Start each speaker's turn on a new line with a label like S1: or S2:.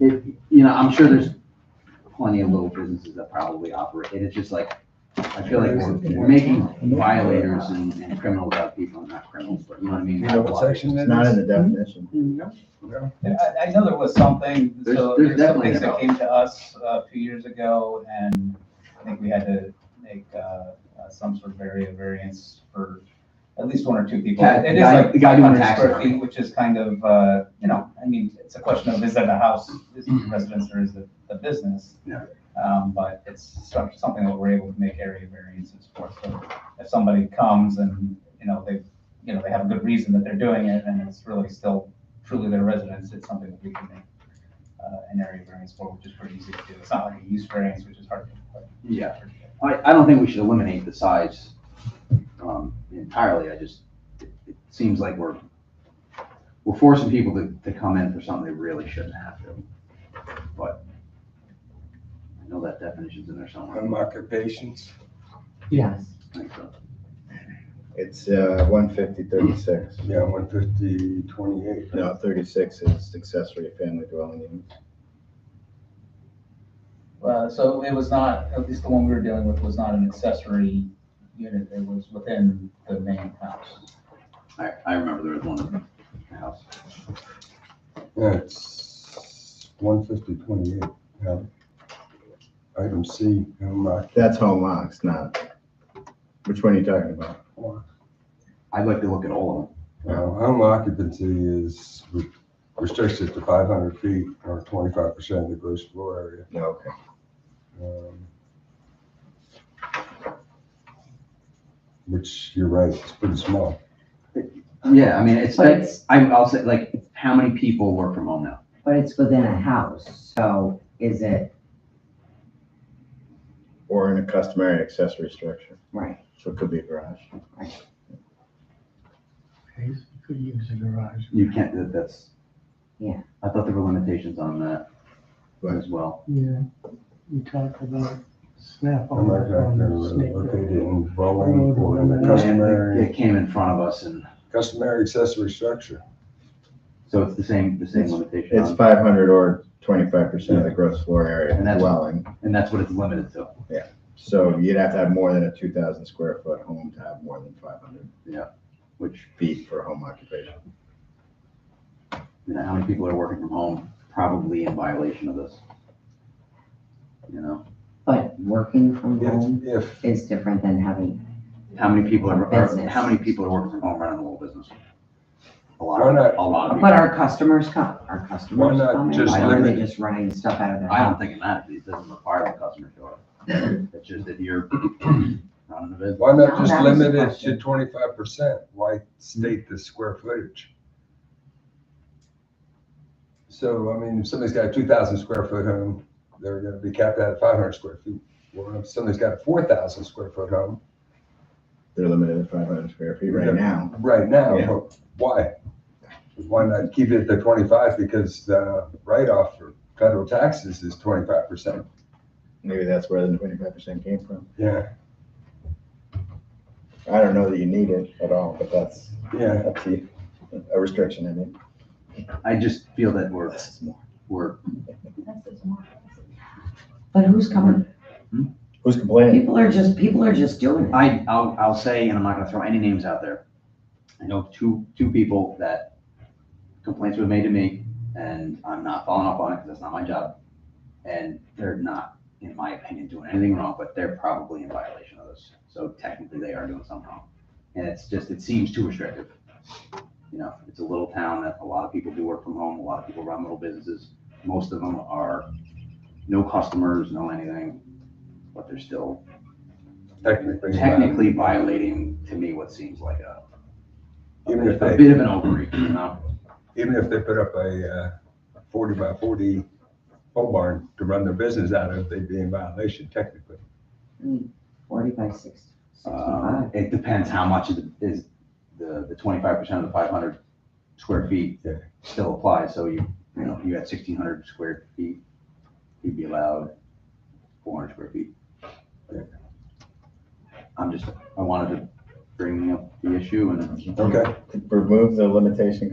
S1: it, you know, I'm sure there's plenty of little businesses that probably operate, and it's just like, I feel like we're, we're making violators and, and criminals out of people, not criminals, but you know what I mean?
S2: You know what section that
S3: It's not in
S2: is?
S3: the definition.
S4: I, I know there was something,
S1: There's-
S4: so
S1: there's
S4: there's some
S1: definitely
S4: things that
S1: help.
S4: came to us uh, a few years ago, and I think we had to make uh, uh, some sort of area variance for at least one or two people.
S1: Yeah,
S4: It
S1: the
S4: is
S1: guy-
S4: like
S1: the guy
S4: five
S1: doing
S4: hundred
S1: tax
S4: square
S1: work.
S4: feet, which is kind of, uh, you know, I mean, it's a question of is that a house, is it residence or is it a business?
S1: Mm-hmm. Yeah.
S4: Um, But it's some- something that we're able to make area variances for. So if somebody comes and, you know, they, you know, they have a good reason that they're doing it and it's really still truly their residence, it's something that we can make uh, an area variance for, which is pretty easy to do. It's not like a use variance, which is hard to. hard to-
S1: Yeah. I, I don't think we should eliminate the size, um, entirely, I just, it it seems like we're, we're forcing people to, to come in for something they really shouldn't have to, but I know that definition's in there somewhere.
S2: Um, occupations,
S5: Yes.
S1: I think so.
S3: It's uh, one fifty thirty-six.
S2: yeah, one fifty, twenty-eight.
S3: No, thirty-six is accessory family dwelling unit.
S4: Uh, So it was not, at least the one we were dealing with was not an accessory unit, it was within the main house.
S1: I, I remember there was one in the house.
S2: Yeah, it's one fifty, twenty-eight, yeah. Item C, home occup-
S3: That's home locks, not, which one are you talking about?
S1: I'd like to look at all of them.
S2: uh, home occupancy is re- restricted to five hundred feet or twenty-five percent of the gross floor area.
S3: No, okay.
S2: Um, Which, you're right, it's pretty small.
S1: Yeah, I mean, it's,
S5: But it's-
S1: I, I'll say, like, how many people work from home now?
S5: But it's within a house, so is it,
S3: Or in a customary accessory structure,
S5: right,
S3: so it could be a garage.
S6: You could use a garage.
S1: You can't, that- that's.
S5: Yeah.
S1: I thought there were limitations on that
S3: Right.
S1: as well.
S6: Yeah, you talk about snap
S2: I'm
S6: on
S2: not
S6: Oh, on
S2: exactly
S6: the Oh, snake.
S2: located in Bowling or in a customary,
S1: It came in front of us and,
S2: customary accessory structure.
S1: so it's the same, the same limitation
S3: It's
S1: on,
S3: five hundred or twenty-five percent of the gross floor area
S1: And that's-
S3: dwelling.
S1: and that's what it's limited to.
S3: So you'd have to have more than a two thousand square foot home to have more than five hundred
S1: Which,
S3: feet for home occupation.
S1: you know, how many people are working from home, probably in violation of this. You know,
S5: but working from home
S2: If, if,
S5: is different than having,
S1: how many people are, are-
S5: Business.
S1: how many people are working from home running a little business? A lot,
S2: Why not-
S1: a lot of people.
S5: but our customers come, our
S2: Why
S5: customers
S2: not
S5: come in,
S2: just
S5: why are they
S2: limit-
S5: just running stuff out of their
S1: I don't
S5: house?
S1: think it matters, it doesn't require the customer to show up. It's just if you're not in the business.
S2: why not
S5: No,
S2: just
S5: that was the
S2: limit it to
S5: question.
S2: twenty-five percent? Why state the square footage? So, I mean, if somebody's got a two thousand square foot home, they're gonna be capped out at five hundred square feet. Well, if somebody's got a four thousand square foot home,
S3: They're limited to five hundred square feet
S2: Yeah.
S3: right now.
S2: right now,
S3: Yeah.
S2: but why? Why not keep it at the twenty-five, because the write-off for federal taxes is twenty-five percent?
S3: Maybe that's where the twenty-five percent came from.
S2: Yeah,
S3: I don't know that you need it at all, but that's,
S2: yeah.
S3: that's a a restriction, I mean.
S1: I just feel that we're, we're,
S5: But who's coming,
S3: Who's complaining?
S5: people are just, people are just doing it.
S1: I, I'll, I'll say, and I'm not gonna throw any names out there. I know two, two people that complaints were made to me, and I'm not following up on it, because that's not my job. And they're not, in my opinion, doing anything wrong, but they're probably in violation of this, so technically they are doing something wrong. And it's just, it seems too restrictive. You know, it's a little town that a lot of people do work from home, a lot of people run little businesses, most of them are no customers, no anything, but they're still
S2: Technically.
S1: technically violating, to me, what seems like a, a
S2: Even if
S1: bit a
S2: they,
S1: bit of an overreach, you know?
S2: even if they put up a uh, forty by forty pole barn to run their business out of, they'd be in violation technically.
S5: Forty by six,
S1: Uh,
S5: sixty-five,
S1: It depends how much of the- is the, the twenty-five percent of the five hundred square feet
S2: Yeah.
S1: still applies, so you, you know, if you had sixteen hundred square feet, you'd be allowed four hundred square feet.
S2: Yeah.
S1: I'm just, I wanted to bring up the issue and.
S2: Okay.
S3: Remove the limitation